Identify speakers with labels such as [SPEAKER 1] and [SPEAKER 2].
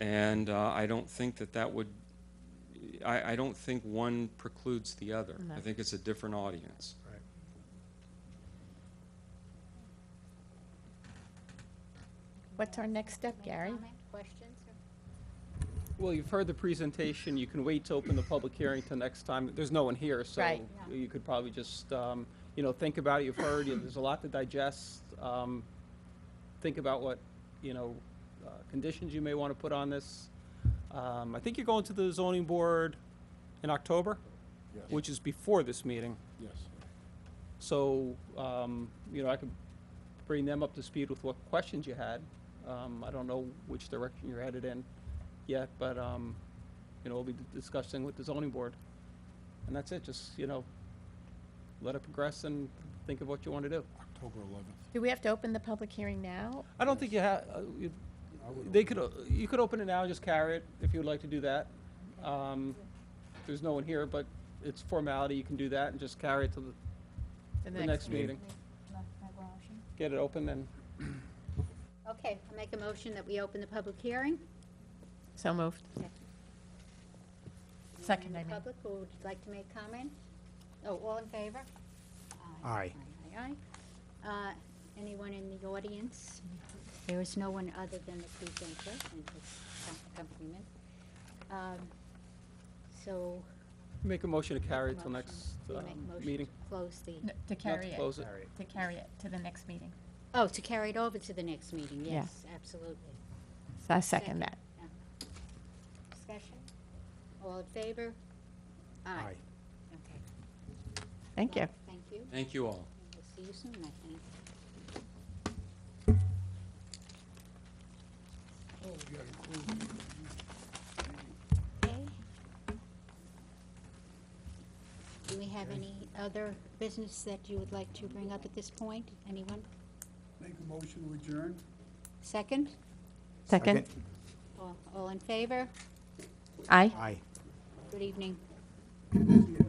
[SPEAKER 1] And uh, I don't think that that would, I, I don't think one precludes the other.
[SPEAKER 2] No.
[SPEAKER 1] I think it's a different audience.
[SPEAKER 2] What's our next step, Gary?
[SPEAKER 3] Comment, questions?
[SPEAKER 4] Well, you've heard the presentation, you can wait to open the public hearing till next time, there's no one here, so
[SPEAKER 2] Right.
[SPEAKER 4] you could probably just, um, you know, think about it, you've heard, you- there's a lot to digest. Um, Think about what, you know, uh, conditions you may want to put on this. Um, I think you're going to the zoning board in October, which is before this meeting.
[SPEAKER 5] Yes.
[SPEAKER 4] So, um, you know, I could bring them up to speed with what questions you had. Um, I don't know which direction you're headed in yet, but, um, you know, we'll be discussing with the zoning board. And that's it, just, you know, let it progress and think of what you want to do.
[SPEAKER 5] October 11th.
[SPEAKER 2] Do we have to open the public hearing now?
[SPEAKER 4] I don't think you have,
[SPEAKER 5] I would
[SPEAKER 4] they
[SPEAKER 5] open
[SPEAKER 4] could, o- you could open it now, just carry it, if you would like to do that. Um, There's no one here, but it's formality, you can do that and just carry it to the,
[SPEAKER 2] To
[SPEAKER 4] the next meeting. Get it open and
[SPEAKER 3] Okay, I make a motion that we open the public hearing.
[SPEAKER 2] So moved. Second,
[SPEAKER 3] Anyone
[SPEAKER 2] I
[SPEAKER 3] in the
[SPEAKER 2] mean.
[SPEAKER 3] public who would like to make comment? Oh, all in favor?
[SPEAKER 5] Aye.
[SPEAKER 3] Aye, aye, aye. Uh, Anyone in the audience? There is no one other than the presenter and his accompaniment. Um, So.
[SPEAKER 4] Make a motion to carry it till
[SPEAKER 3] motion-
[SPEAKER 4] next
[SPEAKER 3] we
[SPEAKER 4] um,
[SPEAKER 3] make motion to
[SPEAKER 4] meeting.
[SPEAKER 3] Close the,
[SPEAKER 2] To
[SPEAKER 4] Not
[SPEAKER 2] carry
[SPEAKER 4] to
[SPEAKER 2] it,
[SPEAKER 4] close it.
[SPEAKER 2] to carry it to the next meeting.
[SPEAKER 3] oh, to carry it over to the next meeting,
[SPEAKER 2] Yeah.
[SPEAKER 3] yes, absolutely.
[SPEAKER 2] So I second that.
[SPEAKER 3] Yeah. Discussion? All in favor?
[SPEAKER 5] Aye.
[SPEAKER 3] Okay.
[SPEAKER 2] Thank you.
[SPEAKER 3] Well, Thank you.
[SPEAKER 1] Thank you all.
[SPEAKER 3] We'll see you soon, I think. Okay. Do we have any other business that you would like to bring up at this point? Anyone?
[SPEAKER 5] Make a motion to adjourn?
[SPEAKER 3] Second?
[SPEAKER 2] Second?
[SPEAKER 3] All- All in favor?
[SPEAKER 2] Aye.
[SPEAKER 5] Aye.
[SPEAKER 3] Good evening.
[SPEAKER 5] See you next